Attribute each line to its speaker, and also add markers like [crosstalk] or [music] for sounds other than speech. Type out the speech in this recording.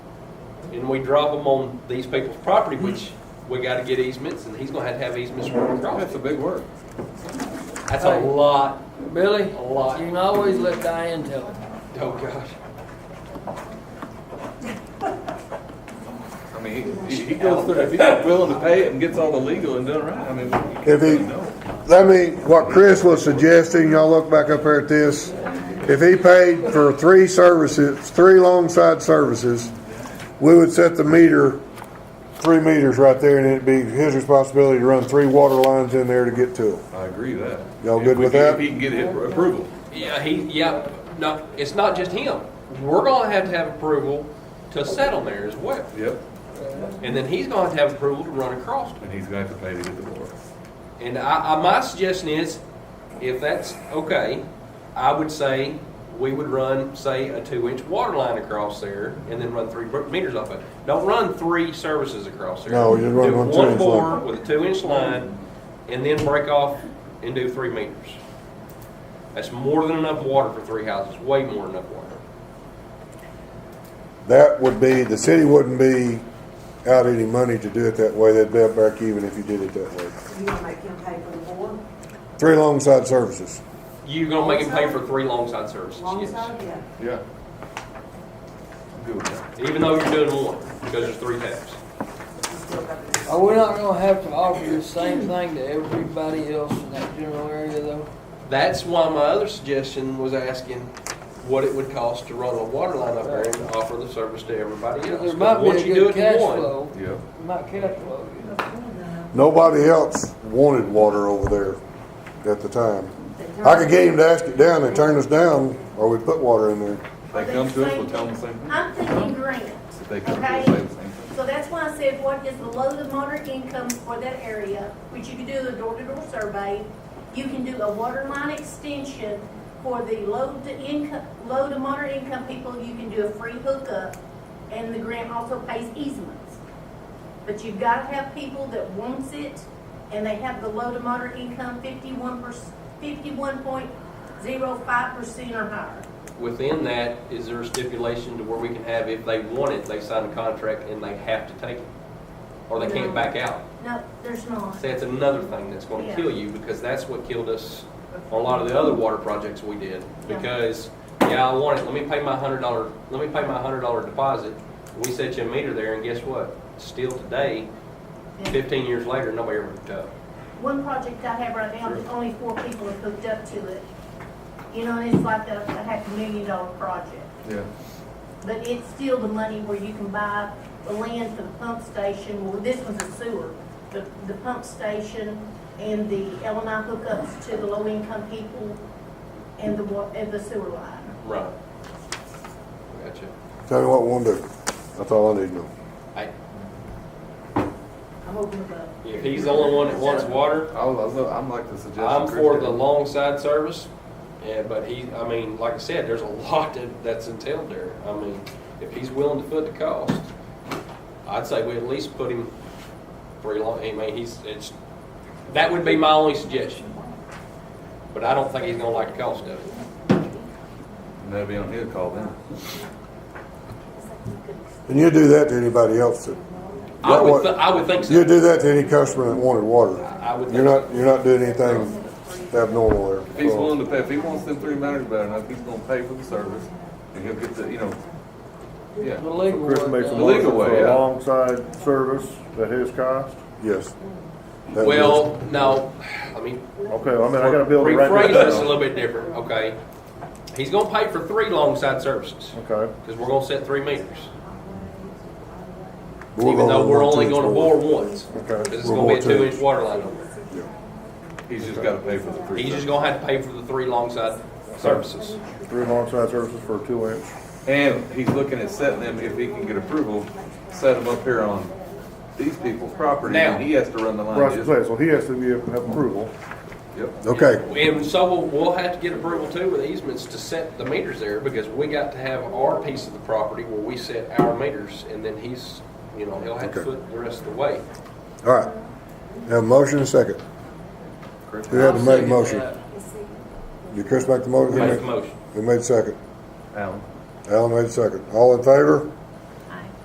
Speaker 1: and we drop them on these people's property, which we gotta get easements, and he's gonna have to have easements for
Speaker 2: That's a
Speaker 1: across.
Speaker 2: big word.
Speaker 1: That's a lot,
Speaker 3: Billy,
Speaker 1: a lot.
Speaker 3: you can always let Diane tell it.
Speaker 1: Oh, gosh.
Speaker 2: I mean, he- he, he goes through, if he's willing to pay it and gets all the legal and done right, I mean, you can't
Speaker 4: If he-
Speaker 2: really know.
Speaker 4: I mean, what Chris was suggesting, y'all look back up here at this, if he paid for three services, three long side services, we would set the meter, three meters right there, and it'd be his responsibility to run three water lines in there to get to them.
Speaker 2: I agree with that.
Speaker 4: Y'all
Speaker 2: If
Speaker 4: good
Speaker 2: we
Speaker 4: with
Speaker 2: can-
Speaker 4: that?
Speaker 2: If he can get it approval.
Speaker 1: Yeah, he, yeah, no, it's not just him. We're gonna have to have approval to set on there as well.
Speaker 2: Yep,
Speaker 1: And then he's gonna have to have approval to run across it.
Speaker 2: and he's gonna have to pay to get the water.
Speaker 1: And I, I, my suggestion is, if that's okay, I would say we would run, say, a two-inch water line across there and then run three bro- meters off it. Don't run three services across there.
Speaker 4: No, you run
Speaker 1: Do
Speaker 4: one
Speaker 1: one
Speaker 4: two-inch
Speaker 1: bore
Speaker 4: line.
Speaker 1: with a two-inch line and then break off and do three meters. That's more than enough water for three houses, way more than enough water.
Speaker 4: That would be, the city wouldn't be out any money to do it that way, they'd be up back even if you did it that way.
Speaker 5: You gonna make him pay for the board?
Speaker 4: Three long side services.
Speaker 1: You're gonna make him pay for three long side services,
Speaker 5: Long
Speaker 1: yes.
Speaker 5: side, yeah.
Speaker 2: Yeah. I'm good with that.
Speaker 1: Even though you're doing one, because there's three taps.
Speaker 5: He's still got to-
Speaker 3: Are we not gonna have to offer the same thing to everybody else in that general area though?
Speaker 1: That's why my other suggestion was asking what it would cost to run a water line up there and offer the service to everybody else.
Speaker 3: There might
Speaker 1: Once
Speaker 3: be
Speaker 1: you
Speaker 3: a
Speaker 1: do it
Speaker 3: good
Speaker 1: in
Speaker 3: cash
Speaker 1: one,
Speaker 3: flow,
Speaker 2: Yep.
Speaker 3: might cash flow, you know.
Speaker 4: Nobody else wanted water over there at the time. I could get him to ask it down, they turned us down, or we put water in there.
Speaker 2: They come to us, we'll tell them the same thing.
Speaker 6: I'm thinking grant,
Speaker 2: If they come to us, say
Speaker 6: okay?
Speaker 2: the same thing.
Speaker 6: So that's why I said, what is the low to moderate income for that area, which you can do a door-to-door survey. You can do a water line extension for the low to income, low to moderate income people, you can do a free hookup, and the grant also pays easements. But you've got to have people that wants it, and they have the low to moderate income fifty-one percent, fifty-one point zero five percent or higher.
Speaker 1: Within that, is there a stipulation to where we can have, if they want it, they sign a contract and they have to take it? Or they can't
Speaker 6: No.
Speaker 1: back out?
Speaker 6: No, there's not.
Speaker 1: See, that's another thing that's gonna
Speaker 6: Yeah.
Speaker 1: kill you, because that's what killed us on a lot of the other water projects we did.
Speaker 6: Yeah.
Speaker 1: Because, yeah, I want it, let me pay my hundred dollar, let me pay my hundred dollar deposit. We set you a meter there, and guess what? Still today,
Speaker 6: Yeah.
Speaker 1: 15 years later, nobody uh, ever hooked up.
Speaker 6: One project I have right now, only four people have hooked up to it. You know, and it's like a, a half a million dollar project.
Speaker 2: Yeah.
Speaker 6: But it's still the money where you can buy the land for the pump station, well, this one's a sewer. The, the pump station and the LMI hookups to the low income people and the wa, and the sewer line.
Speaker 1: Right. Gotcha.
Speaker 4: Tell me what we want to do. That's all I need to know.
Speaker 1: I,
Speaker 6: I'm open above.
Speaker 1: if he's the only one that wants water,
Speaker 2: I was, I'm like the suggestion.
Speaker 1: I'm for
Speaker 2: Chris
Speaker 1: the
Speaker 2: had.
Speaker 1: long side service. Yeah, but he, I mean, like I said, there's a [laughs] lot that, that's entailed there. I mean, if he's willing to foot the cost, I'd say we at least put him for a long, I mean, he's, it's, that would be my only suggestion. But I don't think he's gonna like the cost of it.
Speaker 2: And that'll be on his call then.
Speaker 4: And you do that to anybody else that,
Speaker 1: I
Speaker 4: What-
Speaker 1: would, thi- I would think so.
Speaker 4: you do that to any customer that wanted water.
Speaker 1: I would think
Speaker 4: You're
Speaker 1: so.
Speaker 4: not, you're not doing anything abnormal there.
Speaker 2: If he's willing to pay, if he wants them three matters better enough, he's gonna pay for the service, and he'll get the, you know, yeah.
Speaker 3: The legal
Speaker 7: Chris
Speaker 3: one
Speaker 7: makes a
Speaker 3: does.
Speaker 2: The legal
Speaker 7: motion
Speaker 2: way,
Speaker 7: for
Speaker 2: yeah.
Speaker 7: a alongside service at his cost?
Speaker 4: Yes. That
Speaker 1: Well, no, I mean,
Speaker 7: Okay, I mean, I gotta be able to write
Speaker 1: Rephrase this
Speaker 7: this
Speaker 1: a
Speaker 7: down.
Speaker 1: little bit different, okay? He's gonna pay for three long side services,
Speaker 7: Okay,
Speaker 1: because we're gonna set three meters.
Speaker 4: was-
Speaker 1: Even though
Speaker 4: gonna
Speaker 1: we're
Speaker 4: want
Speaker 1: only
Speaker 4: to
Speaker 1: gonna bore
Speaker 4: explore.
Speaker 1: once,
Speaker 7: okay.
Speaker 1: because it's
Speaker 4: We're
Speaker 1: gonna be a
Speaker 4: going to.
Speaker 1: two-inch water line over there.
Speaker 2: He's just gotta pay for the three.
Speaker 1: He's just
Speaker 2: services.
Speaker 1: gonna have to pay for the three long side services.
Speaker 7: Three alongside services for a two inch.
Speaker 2: And he's looking at setting them, if he can get approval, set them up here on these people's property,
Speaker 1: Now.
Speaker 2: and he has to run the line.
Speaker 7: Right,
Speaker 2: just-
Speaker 7: so he has to be, have approval.
Speaker 2: Yep.
Speaker 4: Okay,
Speaker 1: And so we'll- we'll have to get approval too with easements to set the meters there, because we got to have our piece of the property where we set our meters, and then he's, you know, he'll have to
Speaker 4: Okay.
Speaker 1: foot the rest of the way.
Speaker 4: all right. Have a motion and a second.
Speaker 2: Chris,
Speaker 4: Who had to
Speaker 3: I'll
Speaker 4: make a
Speaker 3: second
Speaker 4: motion?
Speaker 3: that.
Speaker 4: Did Chris make the motion?
Speaker 1: Make the motion.
Speaker 4: Who made second?
Speaker 2: Alan.
Speaker 4: Alan made second. All in favor?